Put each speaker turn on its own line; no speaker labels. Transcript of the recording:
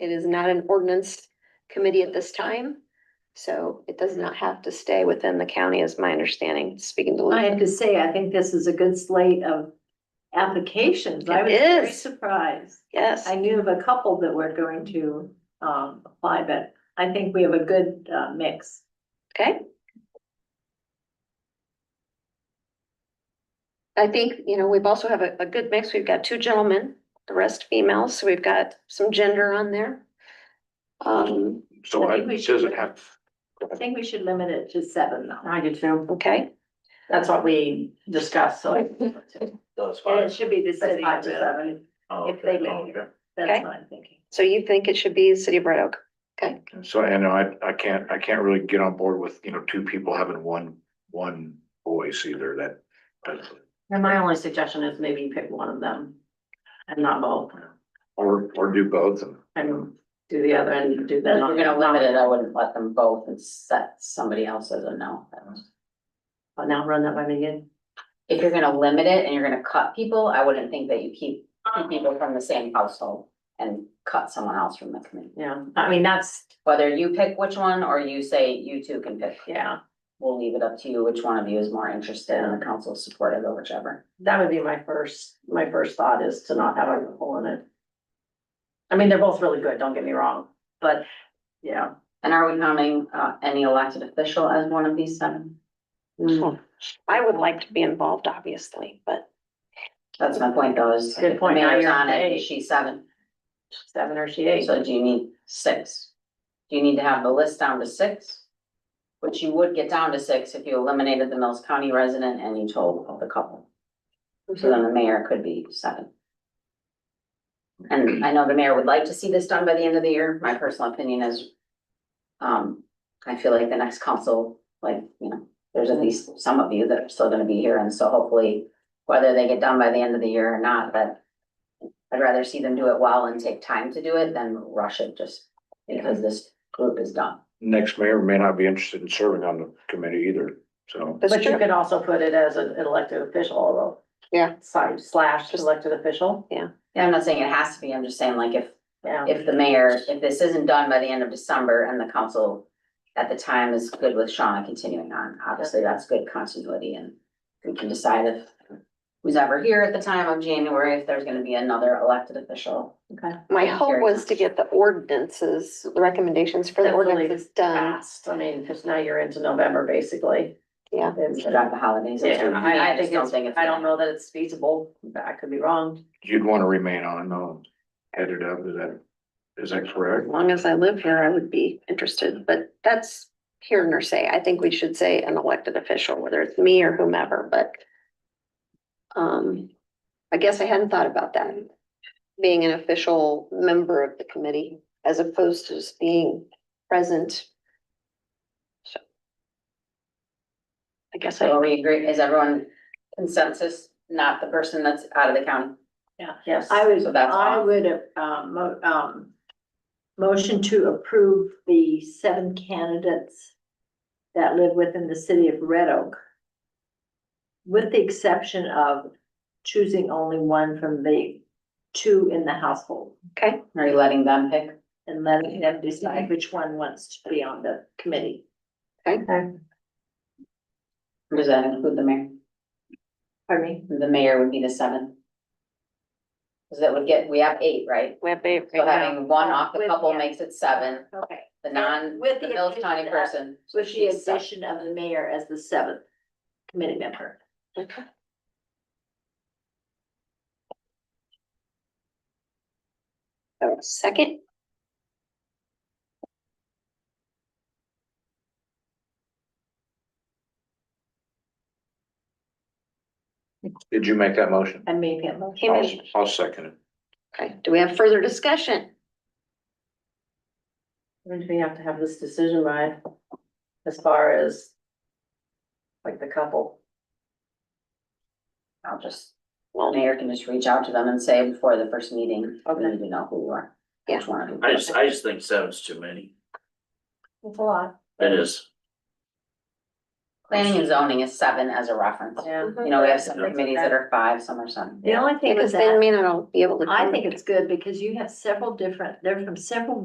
It is not an ordinance committee at this time. So it
Mm-hmm.
does not have to stay within the county is my understanding, speaking to
I
Luke.
have to say, I think this is a good slate of applications. I
It
was very
is.
surprised.
Yes,
I knew of a couple that were going to um apply, but I think we have a good uh mix.
okay. I think, you know, we've also have a, a good mix. We've got two gentlemen, the rest females, so we've got some gender on there. Um,
So
I
I,
think we
it
should-
doesn't have,
I think we should limit it to seven though.
I do too.
okay,
That's what we discussed, so.
And
those five.
it should be the
That's
city.
five to
really.
seven.
Oh,
if they
okay.
live
Oh,
here.
okay.
Okay.
That's what I'm thinking.
so you think it should be City of Red Oak? Okay,
So I know I, I can't, I can't really get on board with, you know, two people having one, one voice either that.
And my only suggestion is maybe pick one of them and not both,
Or, or do both and
and do the other and do that.
If we're gonna limit it, I wouldn't let them both and set somebody else as a no.
But now run that by me again.
If you're gonna limit it and you're gonna cut people, I wouldn't think that you keep keep
Uh-huh.
people from the same household and cut someone else from the committee.
Yeah, I mean, that's,
Whether you pick which one or you say you two can pick,
yeah,
we'll leave it up to you, which one of you is more interested and the council is supportive of whichever.
that would be my first, my first thought is to not have a hole in it. I mean, they're both really good, don't get me wrong, but, yeah.
And are we counting uh any elected official as one of these seven?
Hmm.
I would like to be involved, obviously, but
That's my point though, is
Good
if the
point. Now
mayor's
you're
on
at
it,
eight.
is she seven,
Seven or she eight.
so do you need six? Do you need to have the list down to six? Which you would get down to six if you eliminated the Mills County resident and you told the couple. So then the mayor could be seven. And I know the mayor would like to see this done by the end of the year. My personal opinion is. Um, I feel like the next council, like, you know, there's at least some of you that are still gonna be here, and so hopefully. Whether they get done by the end of the year or not, but. I'd rather see them do it well and take time to do it than rush it just because this group is done.
next mayor may not be interested in serving on the committee either, so.
that's
But you
true.
could also put it as an elected official, although.
Yeah.
Side slash elected official,
Yeah, I'm not saying it has to be, I'm just saying like if
yeah.
if the mayor, if this isn't done by the end of December and the council at the time is good with Shauna continuing on, obviously that's good continuity and we can decide if who's ever here at the time of January, if there's gonna be another elected official.
My
Thank you
hope
very
was to
much.
get the ordinances, the recommendations for the
Definitely
ordinances done.
Fast, I mean, because now you're into November, basically.
Yeah.
It's-
Instead of the holidays. which
Yeah,
would be-
I, I
just
think
don't
it's,
think it's.
I don't know that it's feasible, but I could be wrong.
You'd want to remain on, though, headed up, is that, is that correct?
As long as I live here, I would be interested, but that's here nor say. I think we should say an elected official, whether it's me or whomever, but um, I guess I hadn't thought about that. Being an official member of the committee as opposed to just being present. So I guess I,
So are we agree, is everyone consensus, not the person that's out of the county?
Yeah.
Yes.
I would,
So that's
I
all.
would, uh, mo- um, motion to approve the seven candidates that live within the city of Red Oak. With the exception of choosing only one from the two in the household
okay,
Are you letting them pick?
and letting them decide which one wants to be on the committee.
Or Does that include the mayor?
Pardon me?
The mayor would be the seven. Cause that would get, we have eight, right?
we have a-
So having one off the
With-
couple
yeah.
makes it seven,
Okay.
the non,
With
the
the
Mills County
addition of-
person.
With the
she's seven.
addition of the mayor as the seventh committee member.
Okay. So, Second,
Did you make that motion?
I made that motion.
He
I'll,
made-
I'll second it.
okay, do we have further discussion?
When do we have to have this decision by, as far as like the couple?
I'll just,
Well,
mayor can just reach out to them and say before the first meeting, we
Okay.
need to know who you are.
Yeah.
Which one of you.
I just, I just think seven's too many.
It's a lot.
It is.
Planning and zoning is seven as a reference.
Yeah.
You know, we have some committees that are five, some are seven.
The only thing
Because
is
they
that,
may not all be able to.
I
come.
think it's good because you have several different, they're from several